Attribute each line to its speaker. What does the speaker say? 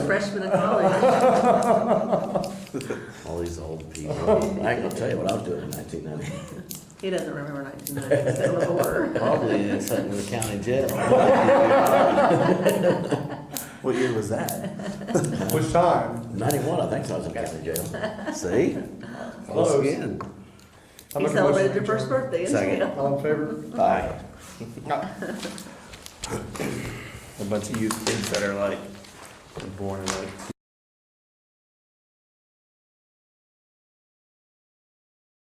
Speaker 1: freshman at college.
Speaker 2: All these old people. I can tell you what I was doing in nineteen ninety.
Speaker 1: He doesn't remember nineteen ninety, so the horror.
Speaker 2: Probably in something with the county jail.
Speaker 3: What year was that?
Speaker 4: Which time?
Speaker 2: Ninety-one, I think, so I was in county jail. See? Close
Speaker 4: Close.
Speaker 2: again.
Speaker 4: I
Speaker 1: He
Speaker 4: make a motion
Speaker 1: celebrated
Speaker 4: to
Speaker 1: your first
Speaker 4: adjourn.
Speaker 1: birthday in
Speaker 2: Second.
Speaker 1: jail.
Speaker 4: All in favor?
Speaker 2: Bye.
Speaker 3: A bunch of youth kids that are like born in like